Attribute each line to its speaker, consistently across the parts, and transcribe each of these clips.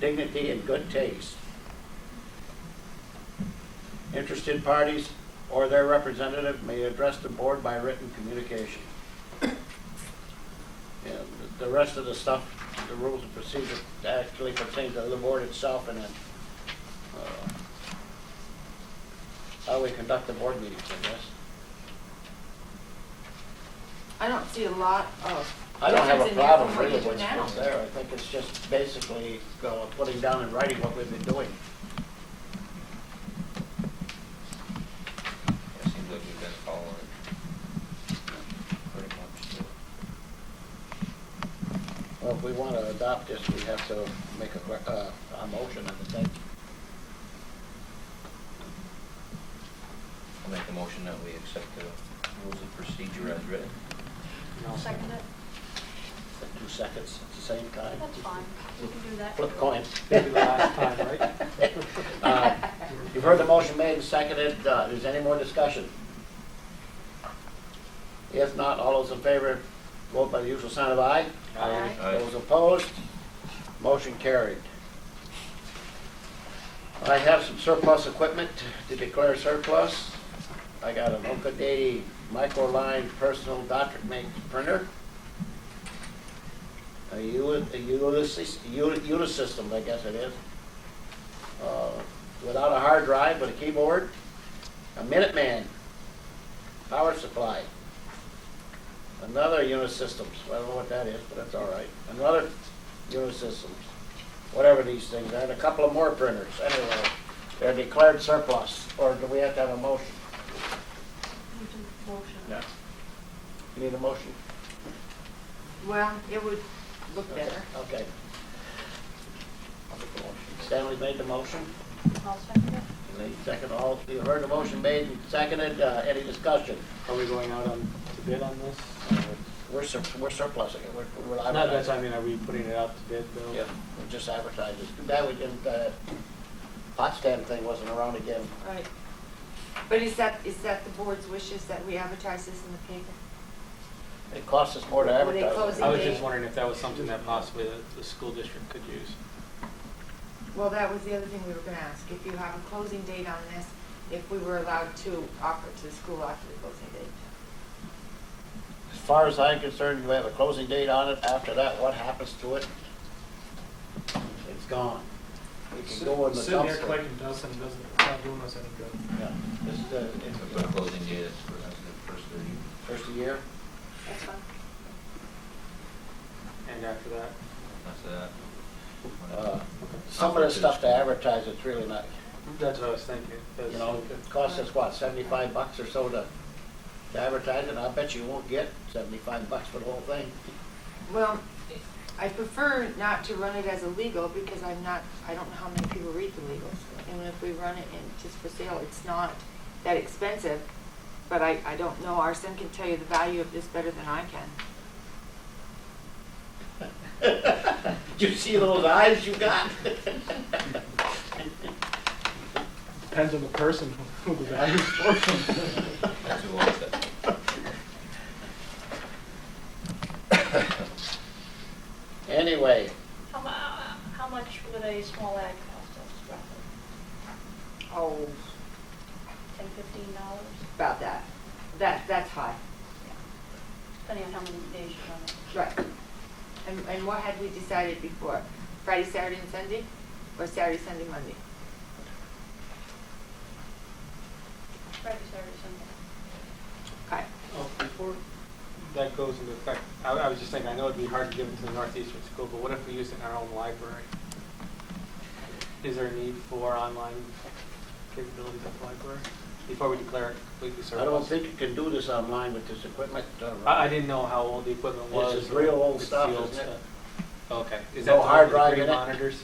Speaker 1: dignity, and good taste. Interested parties or their representative may address the board by written communication. And the rest of the stuff, the rules of procedure actually pertain to the board itself and then uh, how we conduct the board meetings, I guess.
Speaker 2: I don't see a lot of.
Speaker 1: I don't have
Speaker 2: difference
Speaker 1: a
Speaker 2: in there
Speaker 1: problem
Speaker 2: from what
Speaker 1: really
Speaker 2: you do
Speaker 1: with
Speaker 2: now.
Speaker 1: what's there. I think it's just basically uh, putting down in writing what we've been doing.
Speaker 3: It seems like we've been following it pretty much. so.
Speaker 1: Well, if we want to adopt this, we have to make a, que- uh, a motion, I would think.
Speaker 3: I'll make a motion that we accept the rules of procedure as written.
Speaker 4: I'll second it.
Speaker 1: For Two seconds at the same time.
Speaker 4: That's fine. We can do that.
Speaker 1: Flip a coin.
Speaker 5: Maybe the last time, right?
Speaker 1: Uh, You've heard the motion made and seconded. Uh, Is there any more discussion? If not, all those in favor, vote by the usual sign of aye.
Speaker 2: Aye.
Speaker 3: Aye.
Speaker 1: Those opposed, motion carried. I have some surplus equipment to declare surplus. I got an Okade Microline personal doctorate make printer. A Uli- a Ulysses, Uli- Unisystem, I guess it is. Uh, Without a hard drive, but a keyboard. A Minuteman power supply. Another Unisystems, I don't know what that is, but that's all right. Another Unisystems, whatever these things are, and a couple of more printers, anyway. They're declared surplus, or do we have to have a motion?
Speaker 4: We can motion.
Speaker 1: You need a motion?
Speaker 2: Well, it would look better.
Speaker 1: Okay.
Speaker 3: I'll make a motion.
Speaker 1: Stanley made the motion,
Speaker 4: I'll second it.
Speaker 1: Lee seconded, all, you heard the motion made and seconded, uh, any discussion?
Speaker 5: Are we going out on, to bid on this? Or-
Speaker 1: We're sur, we're surplusing it, we're, we're
Speaker 5: Not that,
Speaker 1: advertising.
Speaker 5: I mean, are we putting it out to bid though?
Speaker 1: Yeah, we're just advertising. Too bad we didn't, uh, Potsdam thing wasn't around again.
Speaker 2: Right. But is that, is that the board's wishes that we advertise this in the paper?
Speaker 1: It costs us more to
Speaker 2: Were they
Speaker 1: advertise.
Speaker 2: closing
Speaker 5: I was
Speaker 2: date?
Speaker 5: just wondering if that was something that possibly the, the school district could use.
Speaker 2: Well, that was the other thing we were gonna ask, if you have a closing date on this, if we were allowed to offer it to the school after the closing date.
Speaker 1: As far as I'm concerned, you have a closing date on it. After that, what happens to it? It's gone. It can go in the dumpster.
Speaker 6: Sitting there collecting dust and it doesn't, it's not doing us any good.
Speaker 1: Yeah. This is, uh, it's
Speaker 3: If the closing date is for that's the first of the year.
Speaker 1: first of the year.
Speaker 4: That's fine.
Speaker 5: And after that,
Speaker 3: That's that.
Speaker 1: Uh, Some of the stuff to advertise, it's really not,
Speaker 5: that's what I was thinking.
Speaker 1: you know, it costs us, what, seventy-five bucks or so to to advertise it? I bet you won't get seventy-five bucks for the whole thing.
Speaker 2: Well, I prefer not to run it as a legal, because I'm not, I don't know how many people read the legals. And if we run it in, just for sale, it's not that expensive, but I, I don't know, Arson can tell you the value of this better than I can.
Speaker 1: You see those eyes you got?
Speaker 6: Depends on the person who the value's for.
Speaker 3: That's who owns it.
Speaker 1: Anyway,
Speaker 4: How mu, how much would a small ad cost us roughly?
Speaker 2: Oh,
Speaker 4: Ten, fifteen dollars?
Speaker 2: about that. That, that's high.
Speaker 4: Depending on how many days you run it.
Speaker 2: Right. And, and what had we decided before? Friday, Saturday, and Sunday? Or Saturday, Sunday, Monday?
Speaker 4: Friday, Saturday, Sunday.
Speaker 2: Okay.
Speaker 5: Oh, before that goes into effect, I, I was just thinking, I know it'd be hard to give it to the Northeastern school, but what if we use it in our own library? Is there a need for online capabilities at the library before we declare it completely
Speaker 1: I don't
Speaker 5: surplus?
Speaker 1: think you can do this online with this equipment. uh,
Speaker 5: I, I didn't know how old the equipment
Speaker 1: This
Speaker 5: was.
Speaker 1: is real old
Speaker 5: It's the
Speaker 1: stuff,
Speaker 5: old
Speaker 1: isn't it?
Speaker 5: stuff. Okay. Is
Speaker 1: No
Speaker 5: that the
Speaker 1: hard
Speaker 5: one
Speaker 1: drive
Speaker 5: with the green
Speaker 1: in it?
Speaker 5: monitors?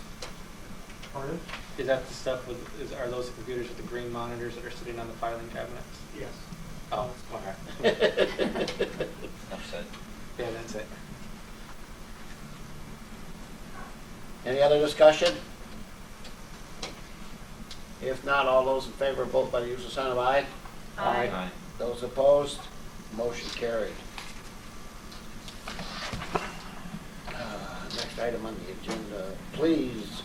Speaker 6: Pardon?
Speaker 5: Is that the stuff with, is, are those the computers with the green monitors that are sitting on the filing cabinets?
Speaker 6: Yes.
Speaker 5: Oh, okay.
Speaker 3: Upset.
Speaker 5: Yeah, that's it.
Speaker 1: Any other discussion? If not, all those in favor, vote by the usual sign of aye.
Speaker 5: Aye.
Speaker 3: Aye.
Speaker 1: Those opposed, motion carried. Uh, Next item on the agenda, please